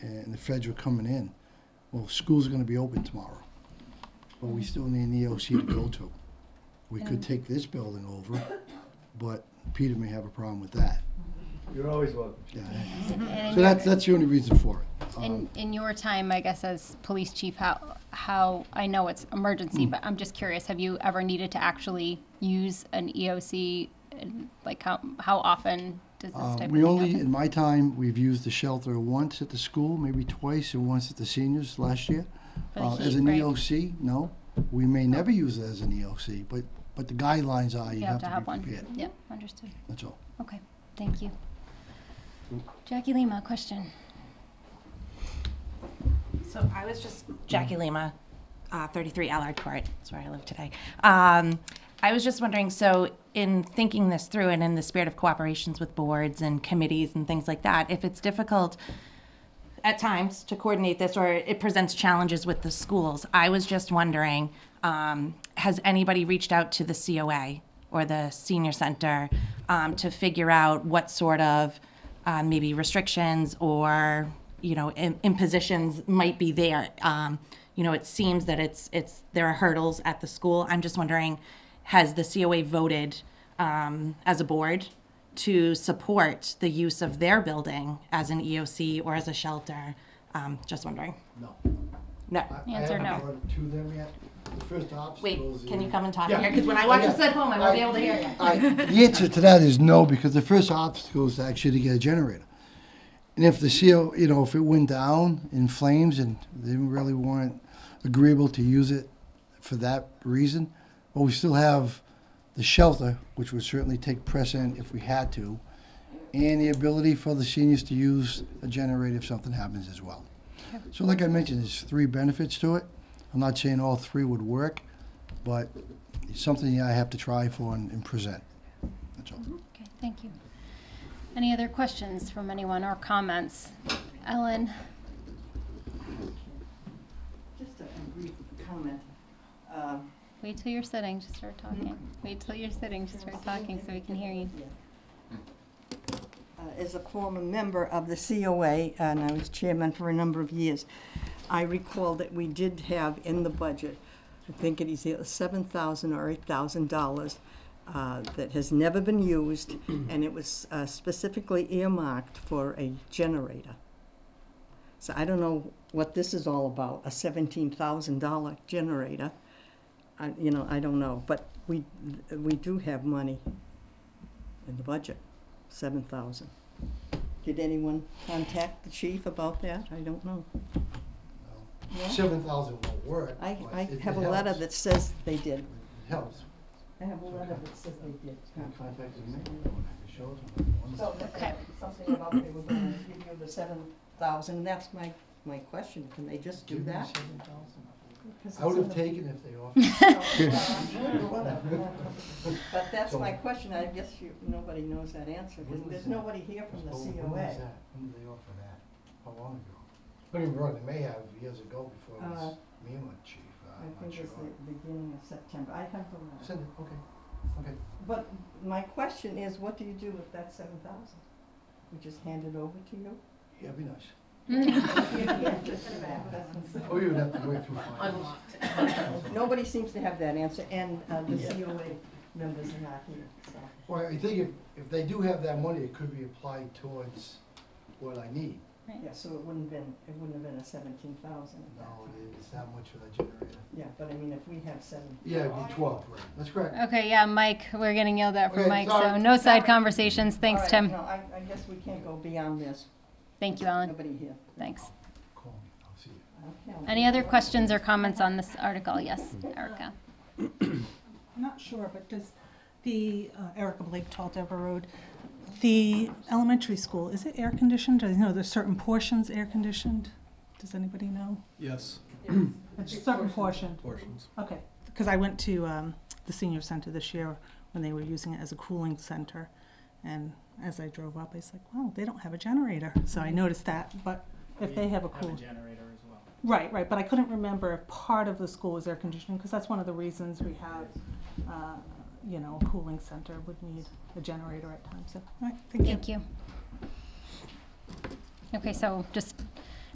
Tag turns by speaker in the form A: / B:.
A: and the feds were coming in. Well, schools are gonna be open tomorrow, but we still need an EOC to go to. We could take this building over, but Peter may have a problem with that.
B: You're always welcome.
A: Yeah,
C: And
A: so
C: in your-
A: that's, that's the only reason for it. Um,
C: In, in your time, I guess, as police chief, how, how, I know it's emergency,
A: Mm.
C: but I'm just curious, have you ever needed to actually use an EOC? And like, how, how often does this
A: Uh,
C: type of
A: We
C: thing
A: only,
C: happen?
A: in my time, we've used the shelter once at the school, maybe twice, and once at the seniors last year.
C: For the
A: Uh, As
C: heat,
A: an
C: right.
A: EOC, no, we may never use it as an EOC, but, but the guidelines are you have to
C: have
A: be prepared,
C: one. Yep, understood.
A: that's all.
C: Okay, thank you. Jackie Lima, question.
D: So I was just, Jackie Lima, uh, 33 Allard Court, that's where I live today. Um, I was just wondering, so in thinking this through and in the spirit of cooperations with boards and committees and things like that, if it's difficult at times to coordinate this or it presents challenges with the schools, I was just wondering, um, has anybody reached out to the COA or the senior center um, to figure out what sort of uh, maybe restrictions or you know im- impositions might be there. Um, you know, it seems that it's it's there are hurdles at the school. I'm just wondering, has the COA voted um, as a board to support the use of their building as an EOC or as a shelter? Um, just wondering.
A: No.
D: No.
C: The answer no.
A: To them yet, the first
D: Wait,
A: obstacle is.
D: can
A: the-
D: you come and talk
A: Yeah.
D: here? Because when I watch
A: Yeah.
D: this at home, I won't be able to hear you.
A: I- The answer to that is no, because the first obstacle is actually to get a generator. And if the CO, you know, if it went down in flames and they really weren't agreeable to use it for that reason, but we still have the shelter, which would certainly take precedent if we had to, and the ability for the seniors to use a generator if something happens as well. So like I mentioned, there's three benefits to it. I'm not saying all three would work, but it's something I have to try for and, and present. That's all.
C: Okay, thank you. Any other questions from anyone or comments? Ellen?
E: Just a brief comment. Uh,
C: Wait till you're sitting to start talking. Wait till you're sitting to start talking so we can hear you.
E: uh, As a former member of the COA, and I was chairman for a number of years, I recall that we did have in the budget, I think it is either $7,000 or $8,000 uh, that has never been used, and it was uh, specifically earmarked for a generator. So I don't know what this is all about, a $17,000 generator. I, you know, I don't know, but we, we do have money in the budget, seven thousand. Did anyone contact the chief about that? I don't know.
A: Seven thousand won't work.
E: I,
A: but
E: I
A: it- it
E: have a letter
A: helps.
E: that says they did.
A: It Helps.
E: I have a letter that says they did.
A: Contacted me, I could show them.
E: So, okay, something about they were gonna give you the seven thousand, that's my, my question, can they just do
A: Give me
E: that?
A: 7,000.
E: 'Cause
A: I would have
E: it's in
A: taken if they offered.
E: the- whatever. But that's my question, I guess you, nobody knows that answer,
A: When
E: There's-
A: was
E: there's
A: that?
E: nobody here from the
A: Oh, When was
E: COA.
A: that? When did they offer that? How long ago? Don't get me wrong, they may have years ago before it was me and my chief, uh,
E: I
A: I'm not
E: think
A: sure.
E: it's the beginning of September, I have the letter.
A: Send it, okay, okay.
E: But my question is, what do you do with that seven thousand? We just hand it over to you?
A: Yeah, it'd be nice.
E: Yeah.
A: Oh, you would have to wait through finance.
E: Nobody seems to have that answer, and uh, the COA members are not here, so.
A: Well, I think if, if they do have that money, it could be applied towards what I need.
E: Yeah, so it wouldn't have been, it wouldn't have been a seventeen thousand at
A: No,
E: that time.
A: it's that much for the generator.
E: Yeah, but I mean, if we have seven.
A: Yeah, it'd be twelve, right, that's correct.
C: Okay, yeah, Mike, we're getting yelled at from
A: Okay,
C: Mike, so
A: sorry.
C: no side conversations. Thanks,
E: All right,
C: Tim.
E: No, I, I guess we can't go beyond this,
C: Thank you, Ellen.
E: nobody here.
C: Thanks.
A: Call me, I'll see you.
E: Okay.
C: Any other questions or comments on this article? Yes, Erica.
F: I'm not sure, but does the, uh, Erica Blake, 12 Deborah Road, the elementary school, is it air-conditioned? I know there's certain portions air-conditioned. Does anybody know?
G: Yes,
F: It's certain portion.
G: portions.
F: Okay, because I went to um, the senior center this year when they were using it as a cooling center. And as I drove up, I was like, wow, they don't have a generator. So I noticed that, but if they have a cool.
G: generator as well.
F: Right, right, but I couldn't remember if part of the school was air conditioning, because that's one of the reasons we have, uh, you know, a cooling center would need a generator at times, so, all right, thank you.
C: Thank you. Okay, so just